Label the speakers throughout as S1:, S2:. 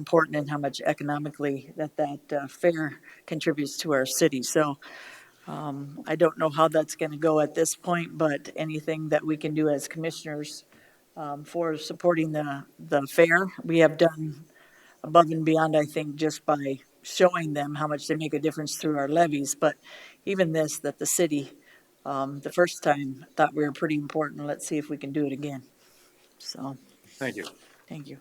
S1: important and how much economically that that uh, fair contributes to our city. So um, I don't know how that's going to go at this point, but anything that we can do as commissioners um, for supporting the, the fair, we have done above and beyond, I think, just by showing them how much they make a difference through our levies. But even this, that the city, um, the first time, thought we were pretty important. Let's see if we can do it again. So,
S2: Thank you.
S1: thank you.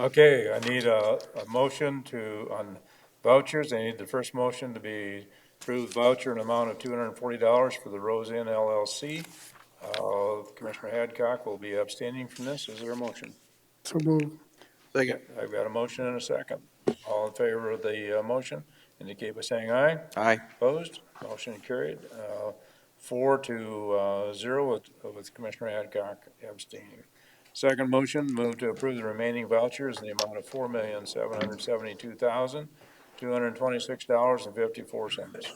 S2: Okay, I need a, a motion to, on vouchers, I need the first motion to be approved voucher in amount of two hundred and forty dollars for the Rose Inn LLC. Uh, Commissioner Hadcock will be abstaining from this, is there a motion?
S3: So move.
S4: Second.
S2: I've got a motion and a second. All in favor of the, uh, motion, indicate by saying aye.
S4: Aye.
S2: Opposed, motion carried, uh, four to, uh, zero with, with Commissioner Adcock abstaining. Second motion, move to approve the remaining vouchers in the amount of four million, seven hundred seventy-two thousand, two hundred twenty-six dollars and fifty-four cents.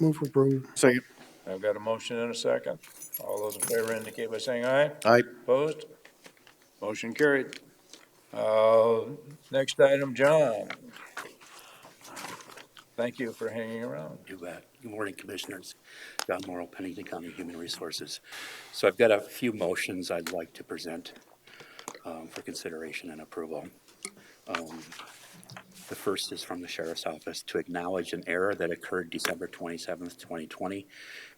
S3: Move approved.
S4: Second.
S2: I've got a motion and a second. All those in favor indicate by saying aye.
S4: Aye.
S2: Opposed? Motion carried. Uh, next item, John. Thank you for hanging around.
S5: You bet. Good morning, Commissioners. John Morrow, Pennington County Human Resources. So I've got a few motions I'd like to present um, for consideration and approval. Um, The first is from the Sheriff's Office to acknowledge an error that occurred December 27th, 2020,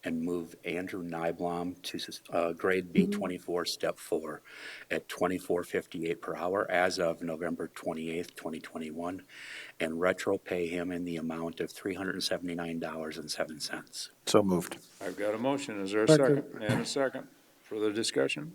S5: and move Andrew Nyblom to uh, grade B24, step four, at 24.58 per hour as of November 28th, 2021, and retro pay him in the amount of $379.07.
S4: So moved.
S2: I've got a motion. Is there a second?
S3: Second.
S2: And a second. Further discussion?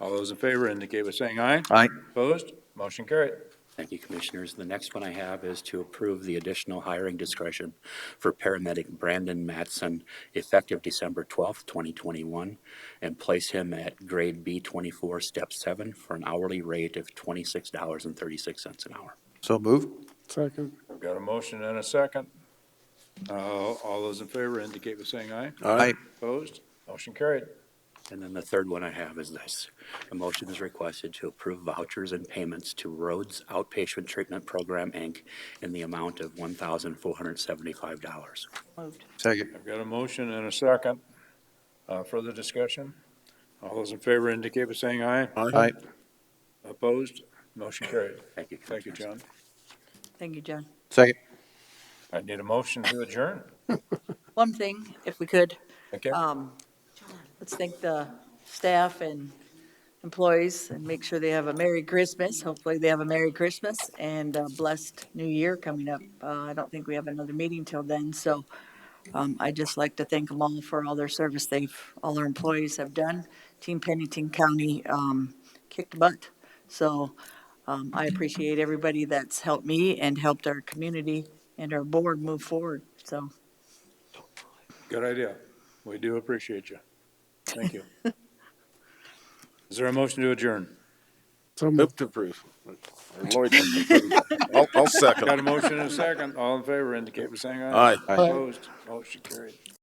S2: All those in favor indicate by saying aye.
S4: Aye.
S2: Opposed? Motion carried.
S5: Thank you, Commissioners. The next one I have is to approve the additional hiring discretion for paramedic Brandon Mattson effective December 12th, 2021, and place him at grade B24, step seven, for an hourly rate of $26.36 an hour.
S4: So moved.
S3: Second.
S2: I've got a motion and a second. Uh, all those in favor indicate by saying aye.
S4: Aye.
S2: Opposed? Motion carried.
S5: And then the third one I have is this. A motion is requested to approve vouchers and payments to Rhodes Outpatient Treatment Program, Inc., in the amount of $1,475.
S1: Moved.
S4: Second.
S2: I've got a motion and a second. Uh, Further discussion? All those in favor indicate by saying aye.
S4: Aye.
S2: Opposed? Motion carried.
S5: Thank you,
S2: Thank you,
S5: Commissioners.
S2: John.
S1: Thank you, John.
S4: Second.
S2: I need a motion to adjourn.
S1: One thing, if we could,
S2: Okay?
S1: um, let's thank the staff and employees and make sure they have a Merry Christmas. Hopefully they have a Merry Christmas and a blessed New Year coming up. Uh, I don't think we have another meeting till then, so, um, I'd just like to thank them all for all their service they've, all our employees have done. Team Pennington County, um, kicked butt. So, um, I appreciate everybody that's helped me and helped our community and our board move forward. So,
S2: Good idea. We do appreciate you. Thank you. Is there a motion to adjourn?
S3: So moved.
S4: Move to approve. I'll, I'll second.
S2: Got a motion and a second. All in favor indicate by saying aye.
S4: Aye.
S3: Aye.
S2: Opposed? Motion carried.